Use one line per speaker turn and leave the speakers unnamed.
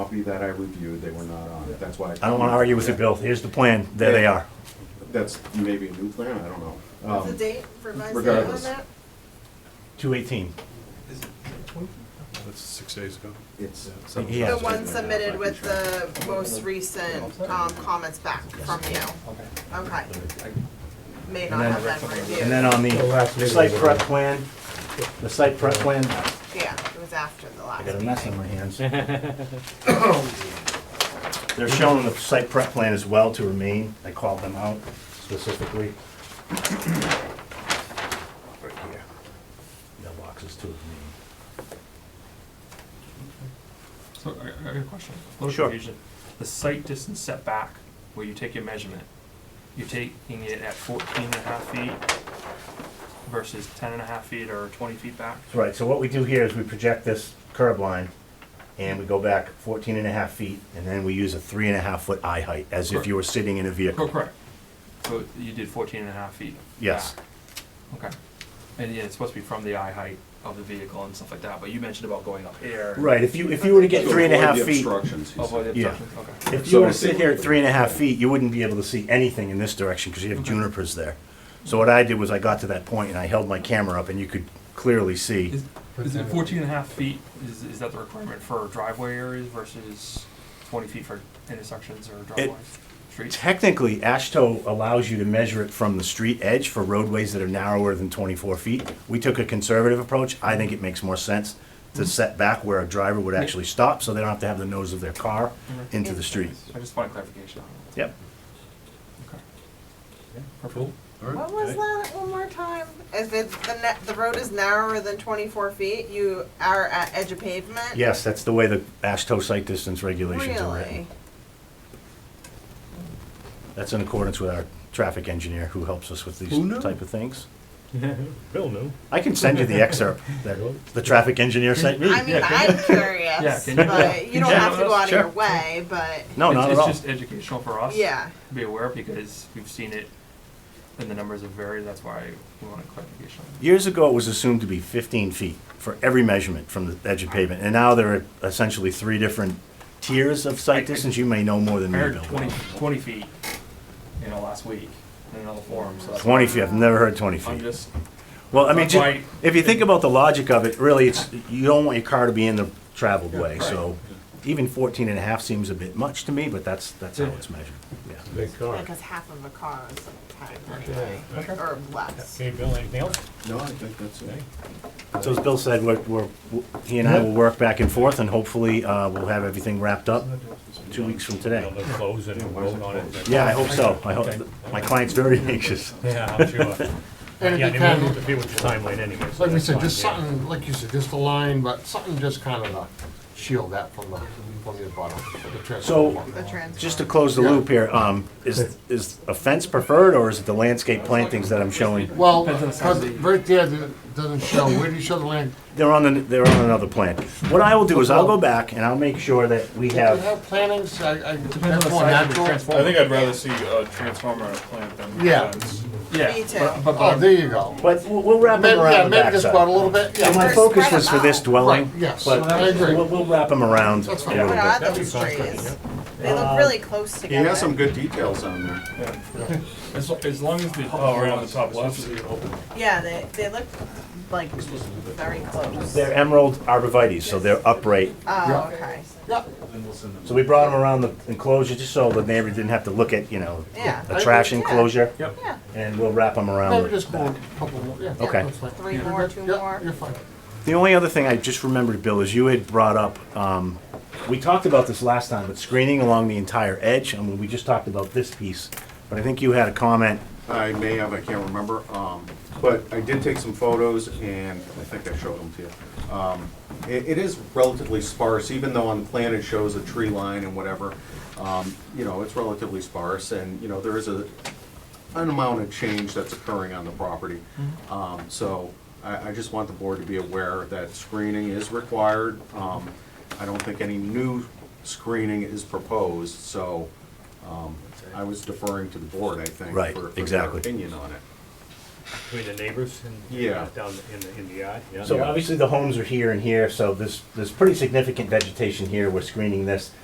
copy that I reviewed, they were not on it, that's why.
I don't want to argue with you, Bill. Here's the plan. There they are.
That's maybe a new plan, I don't know.
What's the
Um,
date, revised date on
regardless.
that?
218.
That's six days ago.
It's. uh,
Yeah.
The one submitted with the most recent um, comments back from you. Okay. May not have been
And then
reviewed.
on
The last
the
meeting
site
was
prep
on.
plan, the site prep plan,
Yeah, it was after the
I
last
got a
meeting.
mess on my hands. They're showing the site prep plan as well to remain. I called them out specifically. Right here. That box is to remain.
So I, I got a question. A little
Sure.
confusion. The site distance setback, where you take your measurement, you're taking it at 14 and a half feet versus 10 and a half feet or twenty feet back?
Right, so what we do here is we project this curb line and we go back 14 and a half feet and then we use a three and a half foot eye height as if you were sitting in a
Oh,
vehicle.
correct. So you did 14 and a half feet?
Yes.
back. Okay. And yeah, it's supposed to be from the eye height of the vehicle and stuff like that, but you mentioned about going up here.
Right, if you, if you were to get three and a half
To avoid
feet,
the obstructions, he
Oh, boy,
said.
the
Yeah.
obstruction, okay.
if
So
you were to
to see
sit
what
here at
the-
three and a half feet, you wouldn't be able to see anything in this direction because you have junipers there. So what I did was I got to that point and I held my camera up and you could clearly see.
Is, is it 14 and a half feet, is, is that the requirement for driveway areas versus twenty feet for intersections or driveways? Streets?
Technically, ASHTO allows you to measure it from the street edge for roadways that are narrower than 24 feet. We took a conservative approach. I think it makes more sense to set back where a driver would actually stop, so they don't have to have the nose of their car into the street.
I just want clarification on it.
Yep.
Okay.
Cool.
What was that, one more time? If it's, the net, the road is narrower than twenty-four feet, you are at edge of pavement?
Yes, that's the way the ASHTO site distance regulations are
Really?
written. That's in accordance with our traffic engineer who helps us with these
Who knew?
type of things.
Bill knew.
I can send you the excerpt that the traffic engineer sent me.
I mean, I'm curious,
can you-
but you don't
Yeah,
have to go out of your
sure.
way, but,
No,
It's-
not at all.
It's just educational for us.
yeah.
To be aware because we've seen it and the numbers have varied, that's why we want a clarification.
Years ago, it was assumed to be 15 feet for every measurement from the edge of pavement, and now there are essentially three different tiers of site distance. You may know more than
I
me,
heard
Bill.
20 20 feet, you know, last week in another forum, so that's.
20 feet, I've never heard 20
I'm
feet.
just,
Well, I mean,
That's
ju-
why-
if you think about the logic of it, really, it's, you don't want your car to be in the traveled way, so even 14 and a half seems a bit much to me, but that's, that's how
Yeah.
it's measured, yeah.
Big car.
Because half of a car is a ten anyway, or less.
Okay, Bill, anything else?
No, I think that's it.
So as Bill said, we're, we're, he and I will work back and forth, and hopefully, uh, we'll have everything wrapped up two weeks from today.
Bill, they'll close and
why is
vote
it
on it.
closed?
next-
Yeah, I hope so. I hope, my client's very anxious.
Yeah, I'm sure.
And
Yeah,
it
they won't
depends,
interfere with the timeline anyway. so
like we
that's
said,
fine,
just
yeah.
something, like you said, just a line, but something just kind of to shield that from the, from the bottom, the
So,
transformer.
The transfer.
just to close the loop here, um, is, is a fence preferred, or is it the landscape plantings that I'm showing?
Well,
Depends on the size of
because
the-
right there, it doesn't show, where do you show the land?
They're on the, they're on another plan. What I will do is I'll go back and I'll make sure that we
Do you
have,
have plantings? I, I,
depends
that's
on the
more
size of the
natural.
transformer.
I think I'd rather see a transformer and a plant than.
Yeah.
fence.
Me too.
Yeah, but- but,
Oh, there you go.
but we'll- we'll wrap
Maybe,
them
yeah,
around the
maybe just
backside.
about a little bit,
So
yeah,
my focus was for this dwelling,
yes,
but
I agree.
we'll, we'll wrap them around a
That's
little
What
fine.
are
bit.
That'd be
those
fine, couldn't
trees?
you?
They look really close
He
together.
has some good details on there.
as, lo- as long as the.
Oh, right on the top left.
Yeah, they, they look like very close.
They're emerald arborvitae, so they're upright.
Oh, okay,
yeah,
So we brought them around the enclosure just so the neighbor didn't have to look at, you know,
Yeah.
a trash enclosure.
Yep.
yeah,
And we'll wrap them around.
maybe
the
just go a couple more, yeah.
Okay.
that's fine.
three
You're
more,
good.
two
Yeah,
more.
You're fine.
The only other thing I just remembered, Bill, is you had brought up, um, we talked about this last time, but screening along the entire edge. I mean, we just talked about this piece, but I think you had a comment.
I may have, I can't remember, um, but I did take some photos and I think I showed them to you. Um, it, it is relatively sparse, even though on the plan it shows a tree line and whatever, um, you know, it's relatively sparse and, you know, there is a, an amount of change that's occurring on the property.
Mm-hmm.
Um, so I, I just want the board to be aware that screening is required. Um, I don't think any new screening is proposed, so, um, I was deferring to the board, I think.
Right,
for- for their
exactly.
Opinion on it.
Between the neighbors and.
Yeah.
Down in the, in the yard, yeah.
uh,
So obviously the homes are here and here, so there's, there's pretty significant vegetation here. We're screening this.